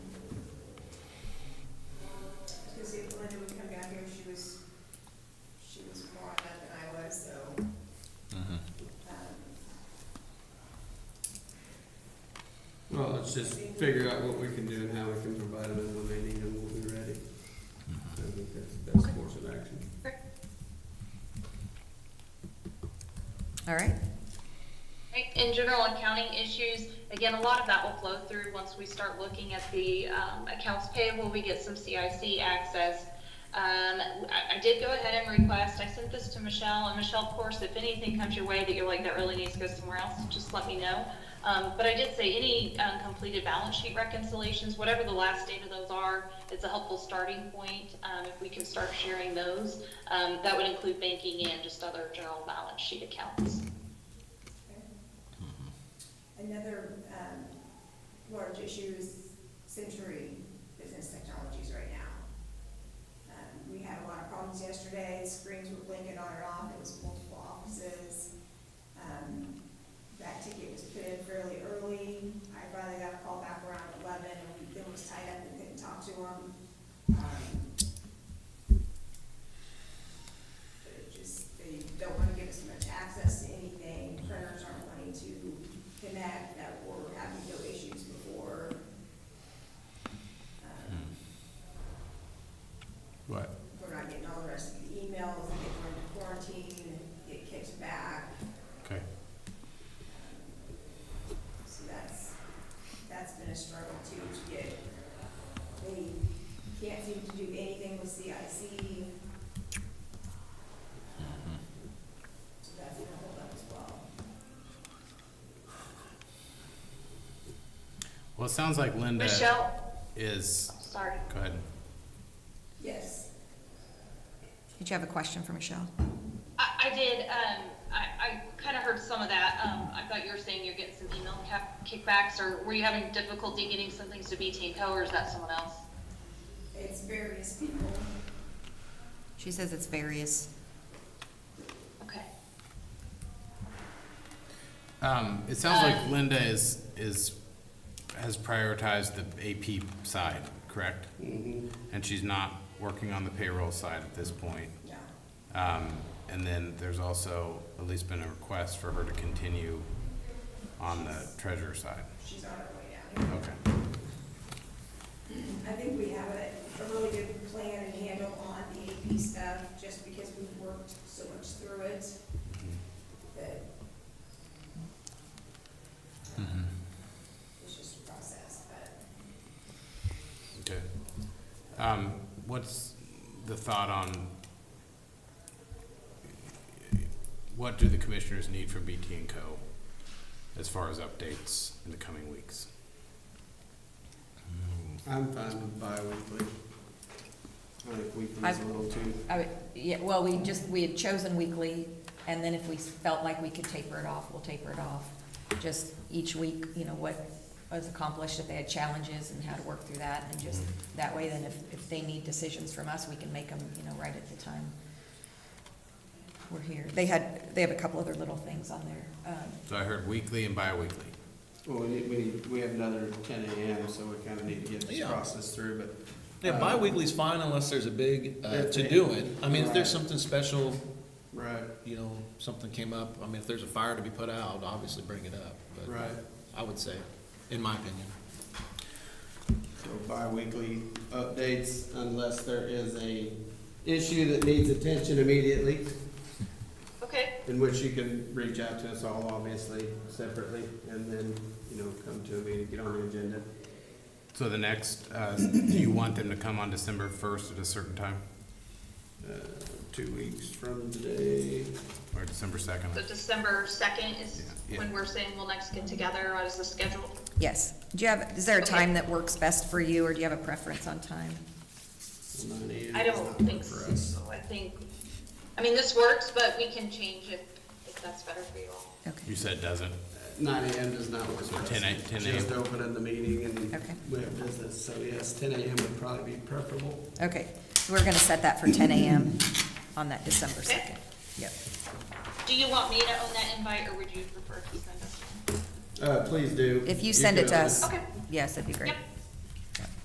let's just figure out what we can do and how we can provide them when they need them, we'll be ready. I think that's, that's the course of action. All right, Right, In general and accounting issues, again, a lot of that will flow through once we start looking at the um, accounts payable, we get some CIC access. Um, I I did go ahead and request, I sent this to Michelle, and Michelle, of course, if anything comes your way that you're like, that really needs to go somewhere else, just let me know. Um, But I did say any um, completed balance sheet reconciliations, whatever the last date of those are, it's a helpful starting point. um, If we can start sharing those, Um, that would include banking and just other general balance sheet accounts. Another um, large issue is Century Business Technologies right now. Um, We had a lot of problems yesterday, screens were blinking on and off, it was multiple offices. Um, That ticket was put in fairly early, I finally got a call back around eleven, and Bill was tied up and couldn't talk to him. Um, They're just, they don't wanna give us much access to anything, printers aren't wanting to connect, that were having no issues before. Um, Right. We're not getting all the rest of the emails, they get into quarantine, get kicked back, Okay. so that's, that's been a struggle too, to get, they can't seem to do anything with CIC. So that's gonna hold up as well. Well, it sounds like Linda Michelle, is. sorry. Go ahead. Yes, did you have a question for Michelle? I, I did, um, I, I kind of heard some of that. Um, I thought you were saying you're getting some email ca- kickbacks, or were you having difficulty getting some things to BT Co., or is that someone else? it's various people. She says it's various. Okay. Um, it sounds like Uh. Um, Linda is is has prioritized the AP side, correct? Mm-hmm. Mhm. And she's not working on the payroll side at this point. No, Um, and then there's also at least been a request for her to continue on the treasurer side. she's on her way down here. Okay. I think we have a, a really good plan and handle on the AP stuff, just because we've worked so much through it. Mm-hmm. That Mm-hmm. it's just a process, but Okay. Um, what's the thought on what do the commissioners need from BT and Co. as far as updates in the coming weeks? I'm fine with bi-weekly. I think weekly is a I've- little too, I would, yeah, well, we just, we had chosen weekly, and then if we felt like we could taper it off, we'll taper it off. Just each week, you know, what was accomplished, if they had challenges and how to work through that, and just that way, then if, if they need decisions from us, we can make them, you know, right at the time we're here. They had, they have a couple other little things on there, um, So I heard weekly and bi-weekly. well, we need, we need, we have another ten AM, so we kinda need to get this Yeah. process through, but Yeah, bi-weekly's fine unless there's a big uh, to do it. I mean, if there's something special, Right, you know, something came up, I mean, if there's a fire to be put out, obviously bring it up. But right. I would say, in my opinion. So bi-weekly updates unless there is a issue that needs attention immediately, Okay. in which you can reach out to us all obviously separately and then, you know, come to a meeting, get on the agenda. So the next, uh, do you want them to come on December first at a certain time Uh, Two weeks from today, or December second? So December 2nd is Yeah. when we're saying we'll next get together, or is the schedule? Yes. Do you have, is there a time that works best for you, or do you have a preference on time? nine AM. I is don't not think good for so. us. I think, I mean, this works, but we can change it if that's better for you all. You Okay. said doesn't. Nine AM does not work for us. 10 a- 10 a.m. Just opening the meeting and Okay. we have business, so yes, ten AM would probably be preferable. Okay, so we're gonna set that for ten AM on that December Okay. second. Yep. Do you want me to own that invite, or would you prefer to send us? Uh, please do. If you send it can to open us. Okay. Yes, that'd be great. Yep.